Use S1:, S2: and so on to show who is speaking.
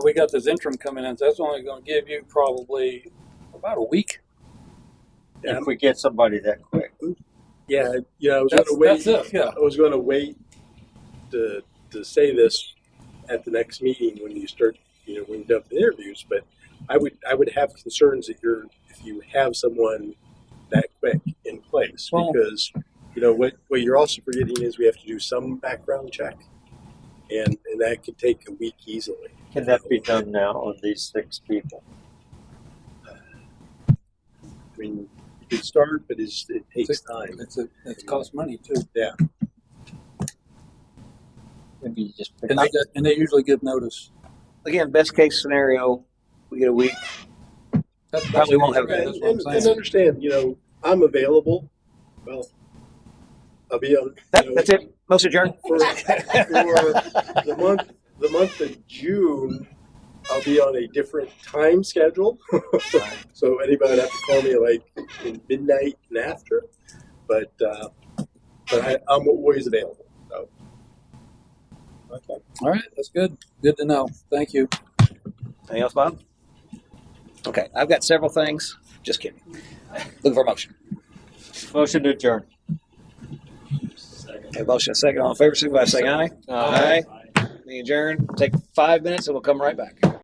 S1: We got this interim coming in, so that's only gonna give you probably about a week.
S2: Yeah.
S3: if we get somebody that quick.
S2: Yeah, yeah, I was
S1: That's,
S2: gonna wait.
S1: that's it, yeah.
S2: I was gonna wait to to say this at the next meeting when you start, you know, when you're done with the interviews. But I would I would have concerns that you're if you have someone that quick in place
S1: Well-
S2: because you know what what you're also forgetting is we have to do some background check, and and that could take a week easily.
S3: Can that be done now on these six people?
S2: I mean, you could start, but it's, it takes
S1: Six-
S2: time.
S1: It's a, it's cost money too.
S3: Maybe you just pick
S1: And they, got- and they usually give notice.
S3: again, best case scenario, we get a week.
S1: That's- that's-
S3: Probably won't have that.
S1: That's
S2: and,
S1: what
S2: and,
S1: I'm
S2: and
S1: saying.
S2: understand, you know, I'm available. Well, I'll be on.
S3: That,
S2: you know,
S3: that's it. Most adjourned.
S2: For, for the month, the month of June, I'll be on a different time schedule. so anybody would have to call me like in midnight and after, but uh, but I, I'm always available. So. Okay.
S1: All right, that's good. Good to know. Thank you.
S3: Anything else, Bob? Okay, I've got several things. Just kidding. Looking for a motion.
S4: Motion to adjourn.
S3: Okay, motion and second. All in favor, signify by saying aye. Aye. Aye. We adjourn. Take five minutes and we'll come right back.